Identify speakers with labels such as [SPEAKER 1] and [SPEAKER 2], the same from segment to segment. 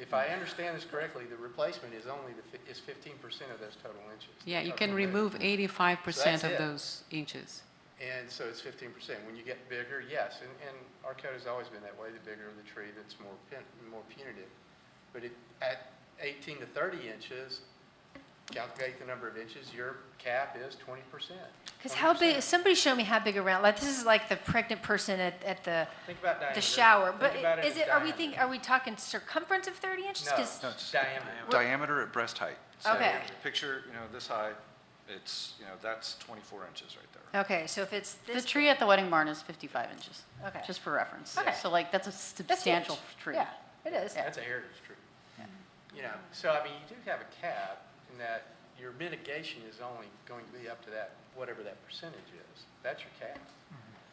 [SPEAKER 1] if I understand this correctly, the replacement is only the, fif- is fifteen percent of those total inches.
[SPEAKER 2] Yeah, you
[SPEAKER 1] Total
[SPEAKER 2] can
[SPEAKER 1] area.
[SPEAKER 2] remove 85%
[SPEAKER 1] it.
[SPEAKER 2] of those inches.
[SPEAKER 1] And so it's fifteen percent. When you get bigger, yes, and, and our code has always been that way. The bigger the tree, that's more pun, more punitive. But it, at eighteen to thirty inches, calculate the number of inches, your cap is twenty percent.
[SPEAKER 3] Because how big, somebody show me how big a round, like, this is like the pregnant person at, at the,
[SPEAKER 4] Think about diameter.
[SPEAKER 3] the shower.
[SPEAKER 4] Think
[SPEAKER 3] But
[SPEAKER 4] about
[SPEAKER 3] is
[SPEAKER 4] as
[SPEAKER 3] it, are we
[SPEAKER 4] diameter.
[SPEAKER 3] think, are we talking circumference of 30 inches?
[SPEAKER 1] No,
[SPEAKER 3] 'Cause-
[SPEAKER 5] No, it's
[SPEAKER 4] Diameter.
[SPEAKER 5] diameter at breast height. So
[SPEAKER 3] Okay.
[SPEAKER 5] Picture, you know, this high, it's, you know, that's 24 inches right there.
[SPEAKER 3] Okay, so if it's
[SPEAKER 6] The
[SPEAKER 3] this,
[SPEAKER 6] tree at the wedding barn is 55 inches,
[SPEAKER 3] Okay.
[SPEAKER 6] just for reference.
[SPEAKER 3] Okay.
[SPEAKER 6] So like, that's a
[SPEAKER 3] that's huge.
[SPEAKER 6] substantial tree.
[SPEAKER 3] Yeah, it is.
[SPEAKER 6] Yeah.
[SPEAKER 1] That's a heritage tree. You know, so I mean, you do have a cap in that your mitigation is only going to be up to that, whatever that percentage is. That's your cap.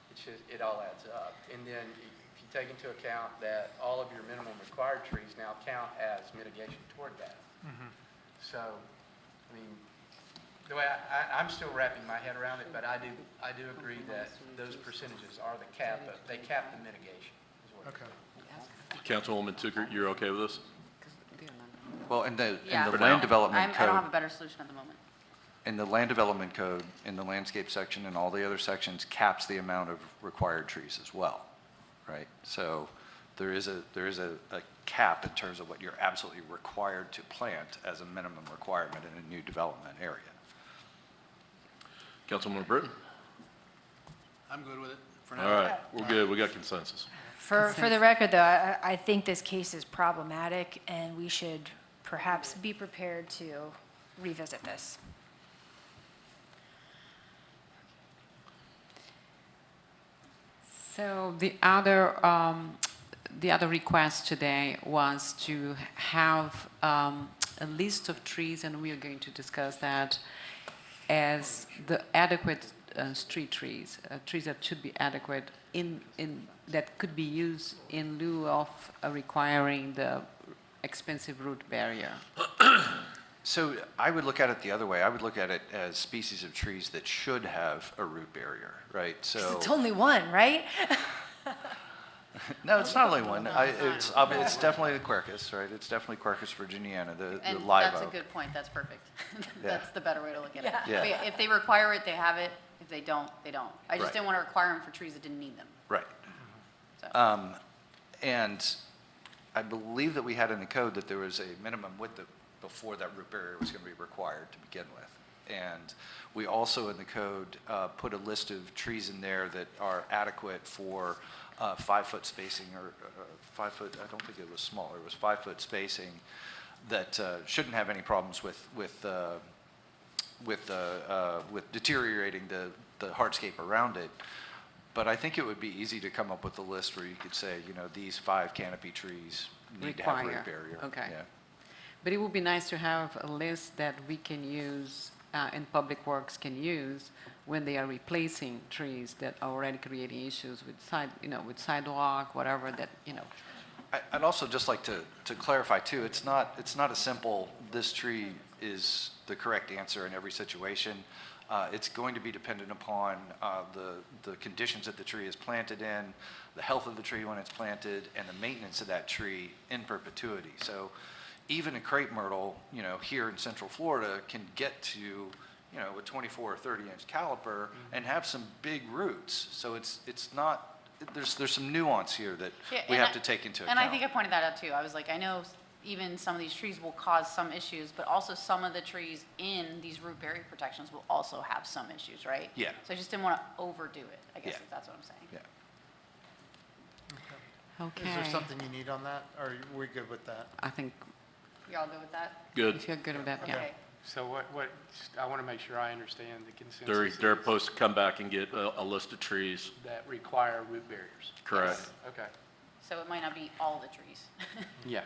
[SPEAKER 1] It's just, it all adds up. And then if you take into account that all of your minimum required trees now count as mitigation toward that. So, I mean, the way I, I, I'm still wrapping my head around it, but I do, I do agree that those percentages are the cap, of they cap the mitigation is what it is.
[SPEAKER 7] Councilwoman Tucker, you're okay with this?
[SPEAKER 5] Well, and the,
[SPEAKER 6] Yeah.
[SPEAKER 5] and the land
[SPEAKER 6] I'm-
[SPEAKER 5] development
[SPEAKER 6] I don't have
[SPEAKER 5] code,
[SPEAKER 6] a better solution at the moment.
[SPEAKER 5] and the land development code, in the landscape section and all the other sections caps the amount of required trees as well, right? So there is a, there is a, a cap in terms of what you're absolutely required to plant as a minimum requirement in a new development area.
[SPEAKER 7] Councilwoman Britton?
[SPEAKER 8] I'm good with it for now.
[SPEAKER 7] All right, we're good, we got consensus.
[SPEAKER 3] For, for the record, though, I, I I think this case is problematic, and we should perhaps be prepared to revisit this.
[SPEAKER 2] So the other, um, the other request today was to have um, a list of trees, and we are going to discuss that as the adequate uh, street trees, uh, trees that should be adequate in, in, that could be used in lieu of uh, requiring the expensive root barrier.
[SPEAKER 5] So I would look at it the other way. I would look at it as species of trees that should have a root barrier, right? So.
[SPEAKER 3] It's only one, right?
[SPEAKER 5] No, it's not only one. I, it's, ob- it's definitely the Quercus, right? It's definitely Quercus virginiana, the, the
[SPEAKER 6] And
[SPEAKER 5] live
[SPEAKER 6] that's a
[SPEAKER 5] oak.
[SPEAKER 6] good point, that's perfect. That's the better way to look at it.
[SPEAKER 5] Yeah.
[SPEAKER 6] But If they require it, they have it, if they don't, they don't. I
[SPEAKER 5] Right.
[SPEAKER 6] just didn't want to require them for trees that didn't need them,
[SPEAKER 5] Right.
[SPEAKER 6] so.
[SPEAKER 5] Um, and I believe that we had in the code that there was a minimum width of, before that root barrier was going to be required to begin with. And we also in the code, uh, put a list of trees in there that are adequate for, uh, five-foot spacing or, uh, five-foot, I don't think it was smaller, it was five-foot spacing that, uh, shouldn't have any problems with, with, uh, with, uh, uh, with deteriorating the, the hardscape around it. But I think it would be easy to come up with a list where you could say, you know, these five canopy trees need to have root
[SPEAKER 2] Require,
[SPEAKER 5] barrier.
[SPEAKER 2] okay.
[SPEAKER 5] Yeah.
[SPEAKER 2] But it would be nice to have a list that we can use, uh, and Public Works can use, when they are replacing trees that are already creating issues with side, you know, with sidewalk, whatever that, you know.
[SPEAKER 5] I- I'd also just like to, to clarify too, it's not, it's not a simple, this tree is the correct answer in every situation. Uh, It's going to be dependent upon uh, the, the conditions that the tree is planted in, the health of the tree when it's planted, and the maintenance of that tree in perpetuity. So even a crepe myrtle, you know, here in central Florida can get to, you know, a 24 or 30 inch caliper and have some big roots. So it's, it's not, there's, there's some nuance here that
[SPEAKER 6] Yeah,
[SPEAKER 5] we
[SPEAKER 6] and
[SPEAKER 5] have to
[SPEAKER 6] I-
[SPEAKER 5] take into
[SPEAKER 6] And I think I
[SPEAKER 5] account.
[SPEAKER 6] pointed that out too. I was like, I know even some of these trees will cause some issues, but also some of the trees in these root barrier protections will also have some issues, right?
[SPEAKER 5] Yeah.
[SPEAKER 6] So I just didn't want to overdo it, I guess,
[SPEAKER 5] Yeah.
[SPEAKER 6] if that's what I'm saying.
[SPEAKER 5] Yeah.
[SPEAKER 2] Okay.
[SPEAKER 8] Is there something you need on that, or are we good with that?
[SPEAKER 2] I think,
[SPEAKER 6] Y'all good with that?
[SPEAKER 7] Good.
[SPEAKER 2] if you're good with that, yeah.
[SPEAKER 6] Okay.
[SPEAKER 1] So what, what, I want to make sure I understand the
[SPEAKER 7] They're,
[SPEAKER 1] consensus
[SPEAKER 7] they're
[SPEAKER 1] is
[SPEAKER 7] supposed to come back and get a, a list of trees,
[SPEAKER 1] that require root barriers.
[SPEAKER 7] correct?
[SPEAKER 1] Okay,
[SPEAKER 6] So it might not be all the trees.
[SPEAKER 1] yeah.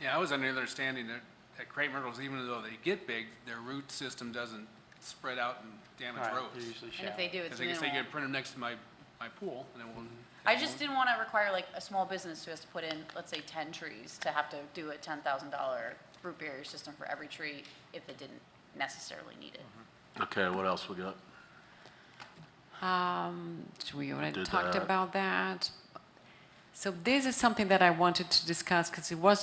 [SPEAKER 9] Yeah, I was under the understanding that, that crepe myrtles, even though they get big, their root system doesn't spread out and damage
[SPEAKER 1] All right, they're
[SPEAKER 9] rows.
[SPEAKER 1] usually
[SPEAKER 6] And
[SPEAKER 1] shallow.
[SPEAKER 6] if they do, it's
[SPEAKER 9] Because like I say, you
[SPEAKER 6] minimal. Mm-hmm.
[SPEAKER 9] could print them next to my, my pool, and it won't.
[SPEAKER 6] I
[SPEAKER 9] it
[SPEAKER 6] just
[SPEAKER 9] won't-
[SPEAKER 6] didn't want to require like a small business who has to put in, let's say, ten trees to have to do a ten thousand dollar root barrier system for every tree if they didn't necessarily need it.
[SPEAKER 7] Okay, what else we got?
[SPEAKER 2] Um, we already
[SPEAKER 7] Did
[SPEAKER 2] talked
[SPEAKER 7] that.
[SPEAKER 2] about that. So this is something that I wanted to discuss, because it was